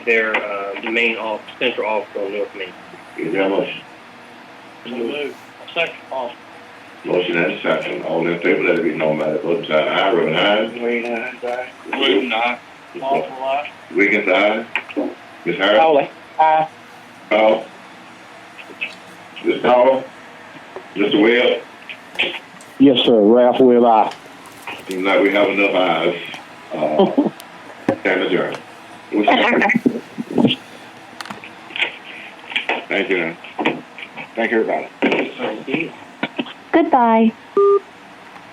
their uh, main off central office on North Main. Is there a motion? So move. Second. Austin. Motion and a second. All in favor, let it uh, be known by the vote of the aye, Rubin, aye. Wayne, aye. Wooten, aye. Walter, aye. Wiggins, aye. Ms. Harris? Foley. Aye. Powell? Ms. Powell? Mr. Webb? Yes, sir. Ralph will aye. Seems like we have enough ayes. Uh, stand adjourned. Thank you. Thank you, everybody. Goodbye.